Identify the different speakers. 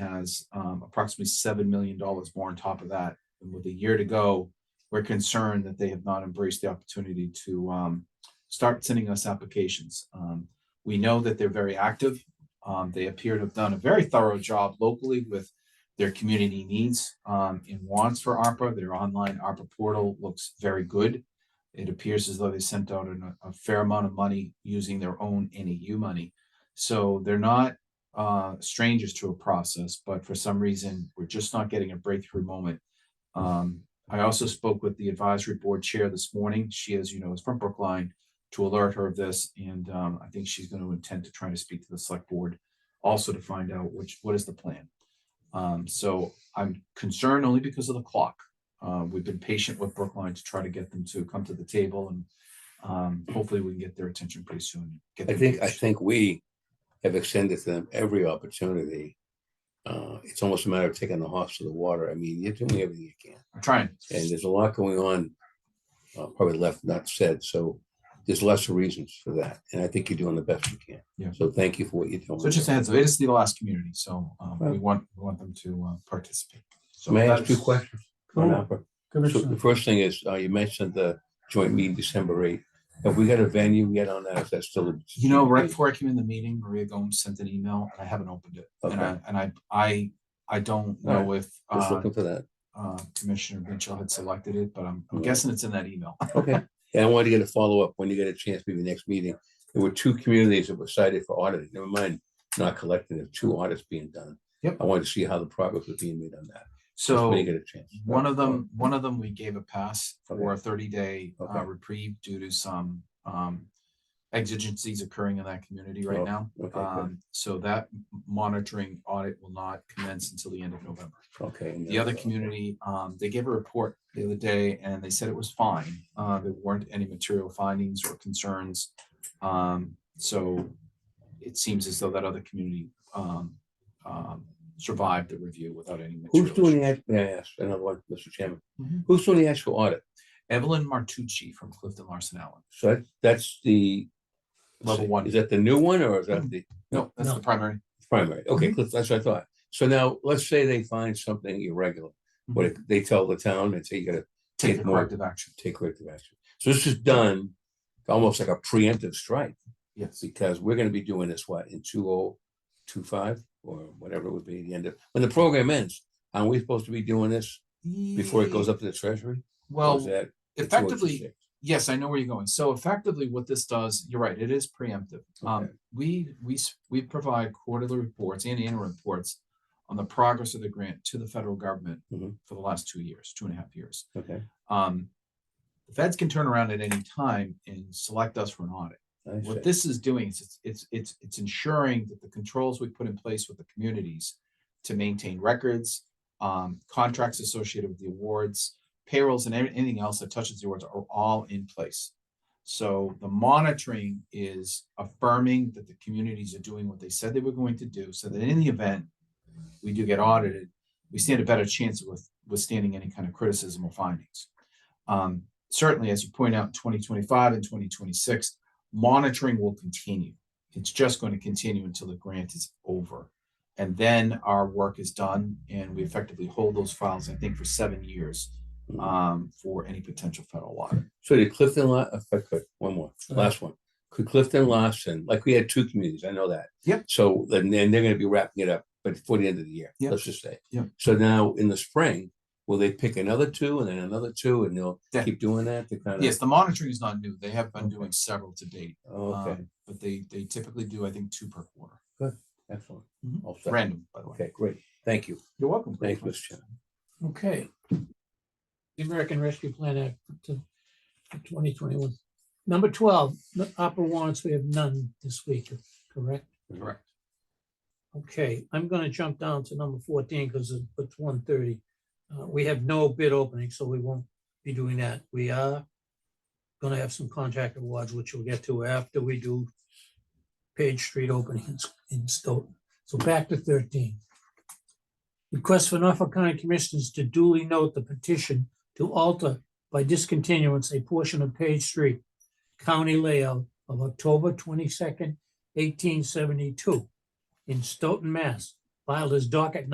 Speaker 1: has um approximately seven million dollars more on top of that. And with a year to go, we're concerned that they have not embraced the opportunity to um start sending us applications. Um, we know that they're very active. Um, they appear to have done a very thorough job locally with their community needs um and wants for ARPA. Their online ARPA portal looks very good. It appears as though they sent out an- a fair amount of money using their own NEU money. So they're not uh strangers to a process, but for some reason, we're just not getting a breakthrough moment. Um, I also spoke with the advisory board chair this morning. She, as you know, is from Brookline to alert her of this, and um, I think she's going to intend to try to speak to the select board also to find out which, what is the plan. Um, so I'm concerned only because of the clock. Uh, we've been patient with Brookline to try to get them to come to the table and um, hopefully we can get their attention pretty soon. get
Speaker 2: I
Speaker 1: them
Speaker 2: think, I
Speaker 1: engaged.
Speaker 2: think we have extended to them every opportunity. Uh, it's almost a matter of taking the horse to the water. I mean, you're doing everything you can.
Speaker 1: I'm trying.
Speaker 2: And there's a lot going on, uh, probably left not said, so there's lots of reasons for that. And I think you're doing the best you can.
Speaker 1: Yeah.
Speaker 2: So thank you for what you're doing.
Speaker 1: So just a heads up, it is the last community, so um, we
Speaker 2: Right.
Speaker 1: want, we want them to uh, participate. So
Speaker 2: May I ask
Speaker 1: that's-
Speaker 2: two questions? on
Speaker 3: Cool.
Speaker 2: ARPA? So
Speaker 3: Commissioner,
Speaker 2: the first thing is, uh, you mentioned the joint meeting December eighth. Have we got a venue yet on that? Is that still?
Speaker 1: You know, right before I came in the meeting, Maria Gomes sent an email and I haven't opened it. And I, and I, I, I don't
Speaker 2: All right.
Speaker 1: know if
Speaker 2: Just
Speaker 1: uh,
Speaker 2: looking for that.
Speaker 1: uh, Commissioner Mitchell had selected it, but I'm I'm
Speaker 2: Mm.
Speaker 1: guessing it's in that email.
Speaker 2: Okay, and I wanted to get a follow-up when you get a chance, maybe next meeting. There were two communities that were cited for auditing, never mind not collecting, there were two audits being done.
Speaker 1: Yep.
Speaker 2: I wanted to see how the progress was being made on that. just
Speaker 1: So.
Speaker 2: When you get a chance.
Speaker 1: One of them, one of them, we gave a pass for a thirty day
Speaker 2: Okay.
Speaker 1: reprieve due to some um exigencies occurring in that community right
Speaker 2: Oh,
Speaker 1: now.
Speaker 2: okay, good.
Speaker 1: Um, so that m- monitoring audit will not commence until the end of November.
Speaker 2: Okay. and
Speaker 1: The other
Speaker 2: then, uh,
Speaker 1: community, um, they gave a report the other day and they said it was fine. Uh, there weren't any material findings or concerns. Um, so it seems as though that other community um um survived the review without any.
Speaker 2: Who's
Speaker 1: material
Speaker 2: doing
Speaker 1: issues.
Speaker 2: the, act- may I ask, another one, Mr. Chairman,
Speaker 1: Mhm.
Speaker 2: who's doing the actual audit?
Speaker 1: Evelyn Martucci from Clifton Larson Allen.
Speaker 2: So that- that's the. let's
Speaker 1: Level
Speaker 2: see,
Speaker 1: one.
Speaker 2: Is that the new one or is that the
Speaker 1: No, that's the primary.
Speaker 2: primary? Okay, that's what I thought. So now, let's say they find something irregular, but if they tell the town and say you gotta
Speaker 1: Take
Speaker 2: take
Speaker 1: the
Speaker 2: more-
Speaker 1: corrective action.
Speaker 2: take corrective action. So this is done almost like a preemptive strike
Speaker 1: Yes.
Speaker 2: because we're gonna be doing this, what, in two oh two five or whatever it would be, the end of, when the program ends, aren't we supposed to be doing this before it goes up to the treasury? Or is
Speaker 1: Well,
Speaker 2: that the 206?
Speaker 1: effectively, yes, I know where you're going. So effectively what this does, you're right, it is preemptive. Um,
Speaker 2: Okay.
Speaker 1: we, we, s- we provide quarterly reports and annual reports on the progress of the grant to the federal government
Speaker 2: Mhm.
Speaker 1: for the last two years, two and a half years.
Speaker 2: Okay.
Speaker 1: Um, the feds can turn around at any time and select us for an audit.
Speaker 2: I
Speaker 1: What
Speaker 2: see.
Speaker 1: this is doing is it's, it's, it's, it's ensuring that the controls we put in place with the communities to maintain records, um, contracts associated with the awards, payrolls and every- anything else that touches the awards are all in place. So the monitoring is affirming that the communities are doing what they said they were going to do, so that in the event we do get audited, we stand a better chance of with withstanding any kind of criticism or findings. Um, certainly, as you point out, twenty twenty-five and twenty twenty-six, monitoring will continue. It's just going to continue until the grant is over. And then our work is done and we effectively hold those files, I think, for seven years
Speaker 2: Mhm.
Speaker 1: um, for any potential federal audit.
Speaker 2: So did Clifton, La- if I could, one more, last one. Could Clifton Lawson, like we had two communities, I know that.
Speaker 1: Yep.
Speaker 2: So then, then they're gonna be wrapping it up, but for the end of the year,
Speaker 1: Yep.
Speaker 2: let's just say.
Speaker 1: Yep.
Speaker 2: So now in the spring, will they pick another two and then another two and they'll
Speaker 1: Yeah.
Speaker 2: keep doing that to kind of?
Speaker 1: Yes, the monitoring is not new. They have been doing several to date.
Speaker 2: Oh, Okay,
Speaker 1: um, But they, they typically do, I think, two per quarter,
Speaker 2: excellent.
Speaker 1: Mhm.
Speaker 2: All set.
Speaker 1: random, by the way.
Speaker 2: Okay, great. Thank you.
Speaker 1: You're welcome. Greg.
Speaker 2: Thanks, Mr. Chairman.
Speaker 3: okay. The American Rescue Plan Act to twenty twenty-one. Number twelve, the opera warrants, we have none this week, correct?
Speaker 1: Correct.
Speaker 3: Okay, I'm gonna jump down to number fourteen because it's one thirty. Uh, we have no bid opening, so we won't be doing that. We are gonna have some contract awards, which we'll get to after we do Page Street openings in Stoughton. So back to thirteen. Request for Norfolk County Commissioners to duly note the petition to alter by discontinuance a portion of Page Street county layout of October twenty-second, eighteen seventy-two in Stoughton, Mass, filed as docket